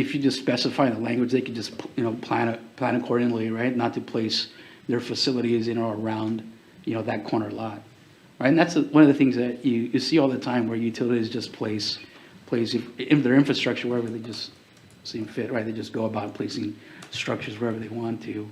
if you just specify the language, they could just, you know, plan, it- plan accordingly, right? Not to place their facilities in or around, you know, that corner lot. Right, and that's the- one of the things that you, you see all the time where utilities just place, place if- in their infrastructure wherever they just seem fit, right? They just go about placing structures wherever they want to.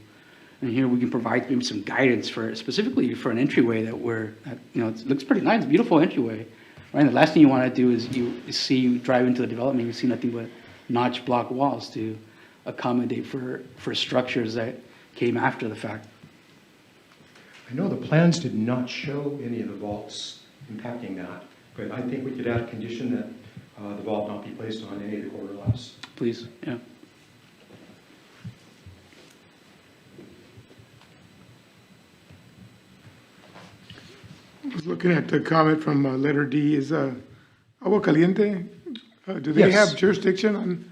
And here we can provide maybe some guidance for, specifically for an entryway that we're, that, you know, it looks pretty nice, beautiful entryway. Right, the last thing you want to do is you see, you drive into the development, you see nothing but notch block walls to accommodate for, for structures that came after the fact. I know the plans did not show any of the vaults impacting that, but I think we could add a condition that uh, the vault not be placed on any of the corner lots. Please, yeah. was looking at the comment from uh, letter D, is uh, Agua Caliente, uh, do they Yes. have jurisdiction on,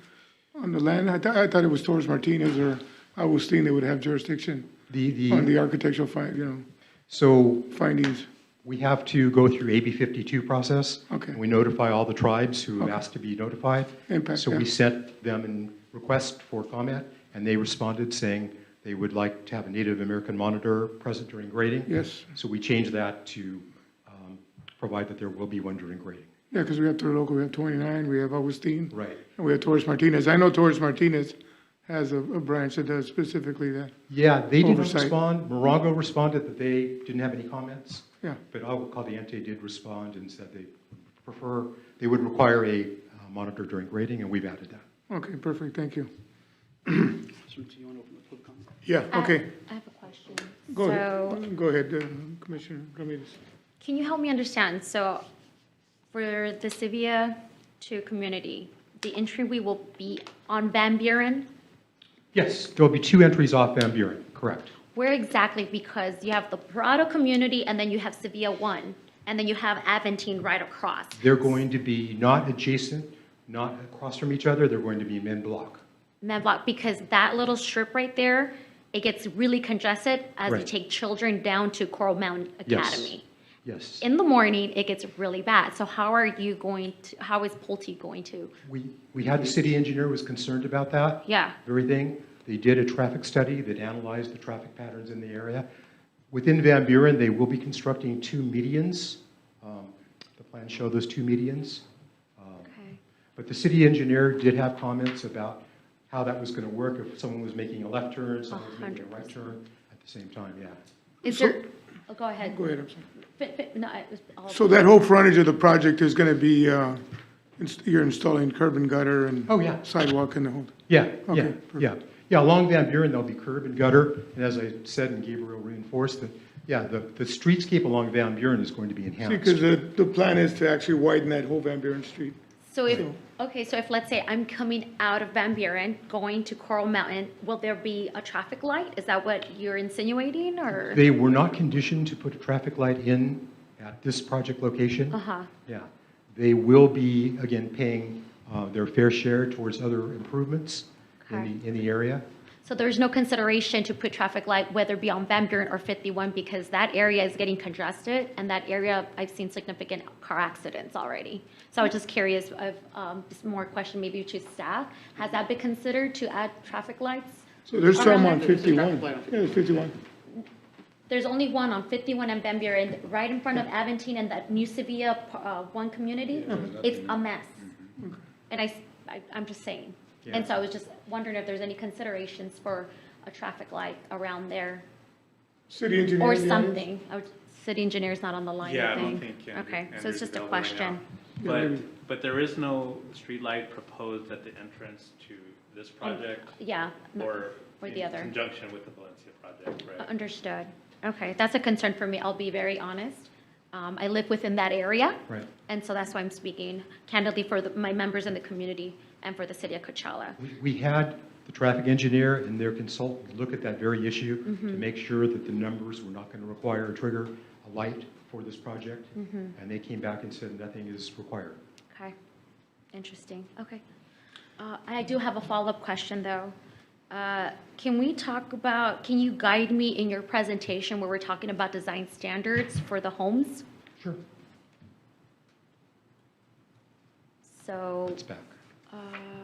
on the land? I thought, I thought it was Torres Martinez or Agustin that would have jurisdiction The, on the the, architectural fi, you know, so findings. we have to go through AB 52 process. Okay. And we notify all the tribes who have asked to be notified. Impact, So we yeah. sent them a request for comment, and they responded saying they would like to have a Native American monitor present during grading. Yes. So we changed that to um, provide that there will be one during grading. Yeah, because we have Toro we have 29, we have Agustin. Right. And we have Torres Martinez. I know Torres Martinez has a, a branch that does specifically that, Yeah, they didn't Oversight. respond. Morongo responded that they didn't have any comments, yeah. but Agua Caliente did respond and said they prefer, they would require a uh, monitor during grading, and we've added that. Okay, perfect, thank you. So do you want to open the public comment? Yeah, I- okay. I have a question. Go Uh, So, ahead, go ahead, uh, Commissioner Ramirez. can you help me understand? So, for the Sevilla to community, the entryway will be on Van Buren? Yes, there'll be two entries off Van Buren, correct. Where exactly? Because you have the Prado community, and then you have Sevilla one, and then you have Aventine right across. They're going to be not adjacent, not across from each other, they're going to be men block. Medlock, because that little strip right there, it gets really congested as you Right. take children down to Coral Mountain Yes. Academy. Yes. In the morning, it gets really bad. So how are you going to, how is Pulte going to? We, we had, the city engineer was concerned about that. Yeah. everything. They did a traffic study that analyzed the traffic patterns in the area. Within Van Buren, they will be constructing two medians. Um, The plans show those two medians. Um, Okay. But the city engineer did have comments about how that was going to work, if someone was making a left turn, someone was making a right 100%. turn at the same time, yeah. Is So- there, oh, go ahead. Go ahead, I'm sorry. But- but, no, I was- I'll- So that whole frontage of the project is going to be, uh, ins- you're installing curb and gutter and Oh, yeah. sidewalk and the whole, Yeah, yeah, Okay, yeah. Yeah, along Van Buren, there'll be curb and gutter, and as I said, and Gabriel reinforced, that, yeah, the, the streetscape along Van Buren is going to be enhanced. because the, the plan is to actually widen that whole Van Buren Street. So if, okay, so if, let's say I'm coming out of Van Buren, going to Coral Mountain, will there be a traffic light? Is that what you're insinuating or? They were not conditioned to put a traffic light in at this project location. Uh-huh. Yeah. They will be, again, paying uh, their fair share towards other improvements in the, in the area. So there's no consideration to put traffic light, whether it be on Van Buren or 51, because that area is getting congested and that area, I've seen significant car accidents already. So I was just curious of, um, just more question maybe to staff. Has that been considered to add traffic lights? So there's some on Around- 51. Yeah, there's 51. There's only one on 51 and Van Buren, right in front of Aventine and that new Sevilla, uh, one community. It's a mess. Mm-hmm. And I, am just saying. And so I was just wondering if there's any considerations for a traffic light around there City engineer. or any ideas? something. I would- City engineer's not on the line, Yeah, I I don't think. think. Andrew- Okay, so Andrew's it's just a available right question. now. Yeah. But, but there is no streetlight proposed at the entrance to this project Oh, Yeah, no, or or the in other. conjunction with the Valencia project, right? uh, understood. Okay, that's a concern for me, I'll be very honest. Um, I live within that area. Right. And so that's why I'm speaking candidly for the- my members in the community and for the city of Coachella. We- We had the traffic engineer and their consultant look at that very issue to make sure that the numbers were not going to require a trigger, a light for this project. And they came back and said nothing is required. Okay, interesting, okay. Uh, I do have a follow-up question, though. Uh, Can we talk about, can you guide me in your presentation where we're talking about design standards for the homes? Sure. So, It's back. uh,